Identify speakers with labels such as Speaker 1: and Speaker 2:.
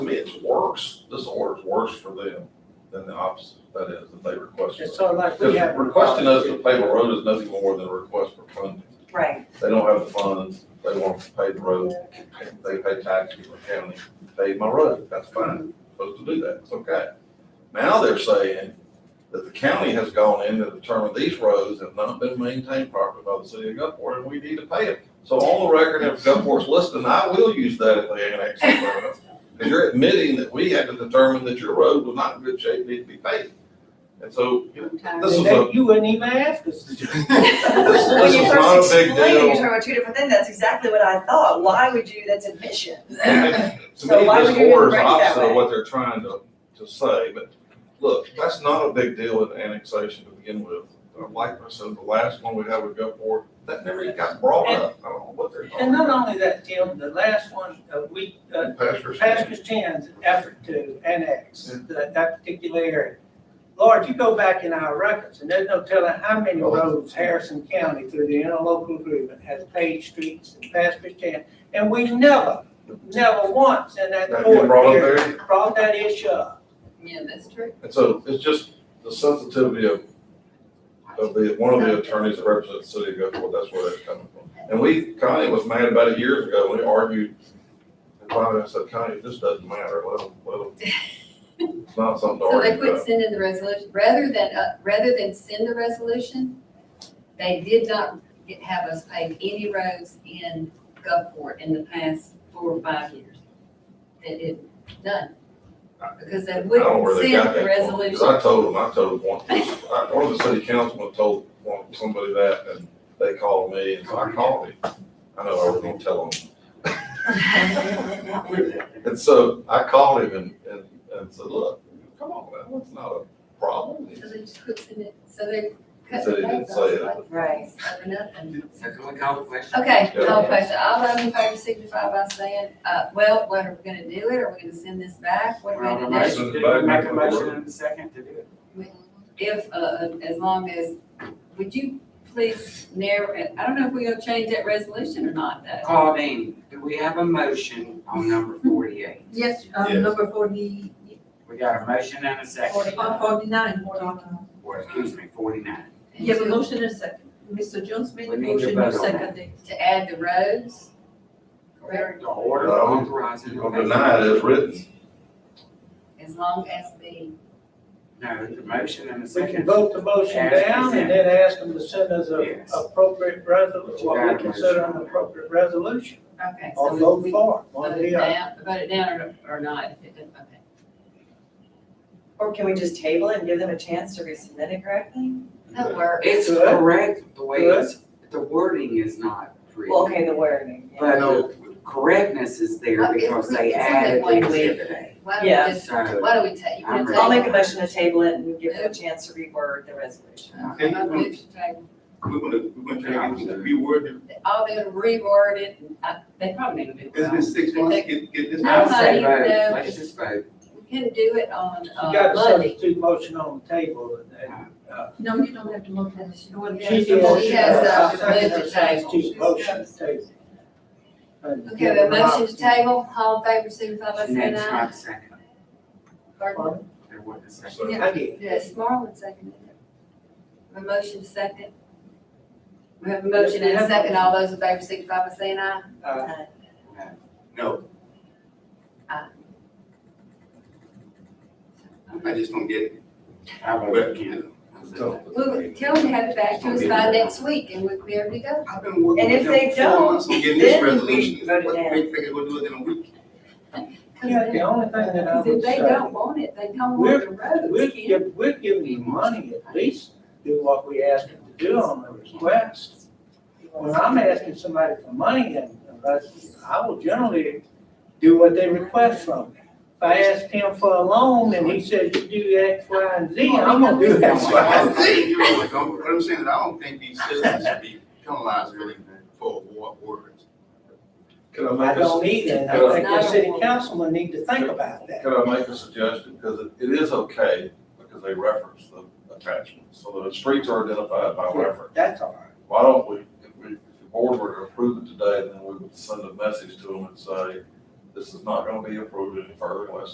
Speaker 1: it works, this ordinance works for them than the opposite, that is, that they request.
Speaker 2: It's sort of like we
Speaker 1: Because
Speaker 2: have.
Speaker 1: requesting us to pave a road is nothing more than a request for funding.
Speaker 3: Right,
Speaker 1: They don't have the funds, they want to pave the road, they pay taxes to the county, pave my road, that's fine, supposed to do that, it's okay. Now they're saying that the county has gone in to determine these roads have not been maintained properly by the city of Gulfport, and we need to pay it. So on the record, if Gulfport's listening, I will use that if they annex the road. Because you're admitting that we had to determine that your road was not in good shape, needed to be paved. And so, you know, this
Speaker 2: And
Speaker 1: is
Speaker 2: they-
Speaker 1: a,
Speaker 2: You wouldn't even ask us. to do
Speaker 1: this
Speaker 2: it.
Speaker 3: When
Speaker 1: this
Speaker 3: you
Speaker 1: is not a
Speaker 3: first
Speaker 1: big
Speaker 3: explained it, you're talking
Speaker 1: deal.
Speaker 3: about two different things, that's exactly what I thought, why would you, that's admission.
Speaker 1: And To
Speaker 3: So
Speaker 1: me,
Speaker 3: why
Speaker 1: this
Speaker 3: would you even
Speaker 1: order is
Speaker 3: break that
Speaker 1: opposite
Speaker 3: way?
Speaker 1: of what they're trying to, to say, but look, that's not a big deal with annexation to begin with. Uh, Like I said, the last one we had with Gulfport, that never even got brought up, I don't know what they're talking
Speaker 2: And not
Speaker 1: about.
Speaker 2: only that, Tim, the last one, uh, we, uh,
Speaker 1: Pastors.
Speaker 2: Pastor Chen's effort to annex that, that particular area. Lord, you go back in our records, and there's no telling how many
Speaker 1: Oh,
Speaker 2: roads Harrison County through the interlocal agreement has paved streets and Pastor Chan. And we never, never once in that
Speaker 1: That
Speaker 2: court
Speaker 1: been brought up
Speaker 2: here
Speaker 1: there,
Speaker 2: brought that issue up.
Speaker 4: Yeah, that's true.
Speaker 1: and so it's just the sensitivity of, of the, one of the attorneys that represents the city of Gulfport, that's where that's coming from. And we, Connie was mad about it years ago, when we argued, and finally I said, Connie, this doesn't matter, let them, let them. It's not something to
Speaker 4: So
Speaker 1: argue
Speaker 4: they
Speaker 1: about.
Speaker 4: quit sending the resolution, rather than, uh, rather than send the resolution, they did not get- have us pave any roads in Gulfport in the past four or five years. They did, none. Because they
Speaker 1: I don't know where
Speaker 4: wouldn't
Speaker 1: they got that
Speaker 4: send the
Speaker 1: from, 'cause
Speaker 4: resolution.
Speaker 1: I told them, I told one, I- one of the city councilmen told one, somebody that, and they called me, and so I called him. I know I was gonna tell him. And so I called him and, and, and said, look, come on, man, that's not a problem. He
Speaker 4: So
Speaker 1: said
Speaker 4: they just quit sending it, so they cut
Speaker 1: he
Speaker 4: the
Speaker 1: didn't
Speaker 4: roads
Speaker 1: say
Speaker 4: off
Speaker 1: it.
Speaker 4: like,
Speaker 3: Right.
Speaker 4: over nothing.
Speaker 5: So can we call the question?
Speaker 4: Okay,
Speaker 1: Yeah.
Speaker 4: no question. All those in favor signify by saying, uh, well, what are we gonna do it? Are we gonna send this back? What
Speaker 5: We're
Speaker 4: are we
Speaker 5: on a
Speaker 4: gonna do?
Speaker 5: motion, did we make a motion in the second to do it?
Speaker 4: If, uh, as long as, would you please narrow, it? I don't know if we're gonna change that resolution or not, though.
Speaker 5: Claudine, do we have a motion on number forty-eight?
Speaker 6: Yes, uh,
Speaker 1: Yes.
Speaker 6: number forty,
Speaker 5: We got a motion and a second,
Speaker 6: uh, forty-nine, we're talking.
Speaker 5: or excuse me, forty-nine.
Speaker 6: You have a
Speaker 4: And
Speaker 6: motion and second. Mr. Jones made
Speaker 5: We
Speaker 6: a
Speaker 5: need to
Speaker 6: motion,
Speaker 5: vote on
Speaker 6: you
Speaker 5: that.
Speaker 6: seconded.
Speaker 4: to- To add the roads,
Speaker 5: The order
Speaker 1: No.
Speaker 5: authorizing.
Speaker 1: You're gonna deny it as written.
Speaker 4: as long as the,
Speaker 5: No, the motion and the
Speaker 2: We can
Speaker 5: second.
Speaker 2: vote the motion down and then ask them to send us a
Speaker 5: Yes.
Speaker 2: appropriate resolution, what we consider an appropriate resolution,
Speaker 4: okay,
Speaker 2: or
Speaker 4: so
Speaker 2: vote
Speaker 4: we
Speaker 2: for it, one
Speaker 4: vote
Speaker 2: or
Speaker 4: it
Speaker 2: the other.
Speaker 4: down, vote it down or, or not, if it doesn't, okay.
Speaker 3: Or can we just table it and give them a chance to resubmit it correctly?
Speaker 4: That works.
Speaker 5: It's
Speaker 2: Good.
Speaker 5: correct, the way it's, the wording is not correct.
Speaker 3: Well, okay, the wording, yeah.
Speaker 5: But the correctness is there
Speaker 4: Okay,
Speaker 5: because they
Speaker 4: it's in
Speaker 5: added
Speaker 4: that
Speaker 5: the
Speaker 4: language.
Speaker 5: exhibit.
Speaker 4: Why don't we
Speaker 3: Yeah.
Speaker 4: just, why don't we take, you wanna
Speaker 5: I'm
Speaker 4: take?
Speaker 3: I'll make a motion to table it and give them a chance to reword the resolution.
Speaker 4: Okay, I'll move to table.
Speaker 7: We're gonna, we're gonna try to reword it.
Speaker 4: All they'll reword it, and I, they probably need to do
Speaker 7: It's been six months, get, get this.
Speaker 4: I don't
Speaker 5: I'll say
Speaker 4: know, you
Speaker 5: vote.
Speaker 4: know.
Speaker 5: Let's just vote.
Speaker 4: We can do it on,
Speaker 2: You
Speaker 4: uh,
Speaker 2: got a
Speaker 4: Monday.
Speaker 2: substitute motion on the table and- and, uh,
Speaker 6: No, you don't have to vote on this. You want to.
Speaker 4: She
Speaker 6: ask
Speaker 4: did.
Speaker 6: the motion.
Speaker 4: She has, uh,
Speaker 2: I'll second
Speaker 4: moved
Speaker 2: her
Speaker 4: the table.
Speaker 2: substitute motion to table. And give
Speaker 4: Okay, we have
Speaker 2: her
Speaker 4: a
Speaker 2: an
Speaker 4: motion to
Speaker 2: option.
Speaker 4: table, all in favor, signify by saying
Speaker 5: Jeanette's
Speaker 4: aye.
Speaker 5: not second.
Speaker 4: Pardon?
Speaker 5: There wasn't a second.
Speaker 1: So-
Speaker 6: Yeah.
Speaker 2: I did.
Speaker 4: Yes, Marlon seconded it. A motion second. We have a motion and a second, all those in favor, signify by saying aye.
Speaker 2: Uh,
Speaker 7: No, I just don't get it.
Speaker 5: I voted again.
Speaker 7: So,
Speaker 4: We'll, tell them to have it back to us by next week and we'll be able to go.
Speaker 7: I've been working.
Speaker 3: And if
Speaker 7: with them
Speaker 3: they
Speaker 7: for
Speaker 3: don't,
Speaker 7: four months on getting this
Speaker 3: then we
Speaker 7: resolution,
Speaker 3: vote it
Speaker 7: what,
Speaker 3: down.
Speaker 7: we think they're gonna do it in a week?
Speaker 2: Yeah, the only thing that I
Speaker 4: Because if
Speaker 2: would
Speaker 4: they don't
Speaker 2: say,
Speaker 4: want it, they don't want the
Speaker 2: we're,
Speaker 4: roads, Ken.
Speaker 2: give- we're giving you money, at least do what we asked them to do on the request. When I'm asking somebody for money, and unless, I will generally do what they request from me. If I ask him for a loan and he says you do X, Y, and Z, I'm gonna do X,
Speaker 7: So I
Speaker 2: Y, and
Speaker 7: don't
Speaker 2: Z.
Speaker 7: think, you know, like, I'm- what I'm saying is I don't think these citizens should be penalized really for war words.
Speaker 1: Can I
Speaker 2: I
Speaker 1: make a,
Speaker 2: don't either, and I
Speaker 1: Could I-
Speaker 2: think the city councilman need to think about that.
Speaker 1: can I make a suggestion? Because it, it is okay, because they reference the attachment, so the streets are identified by reference.
Speaker 2: That's all right.
Speaker 1: why don't we, if we, if the board were to approve it today, then we would send a message to them and say, this is not gonna be approved any further unless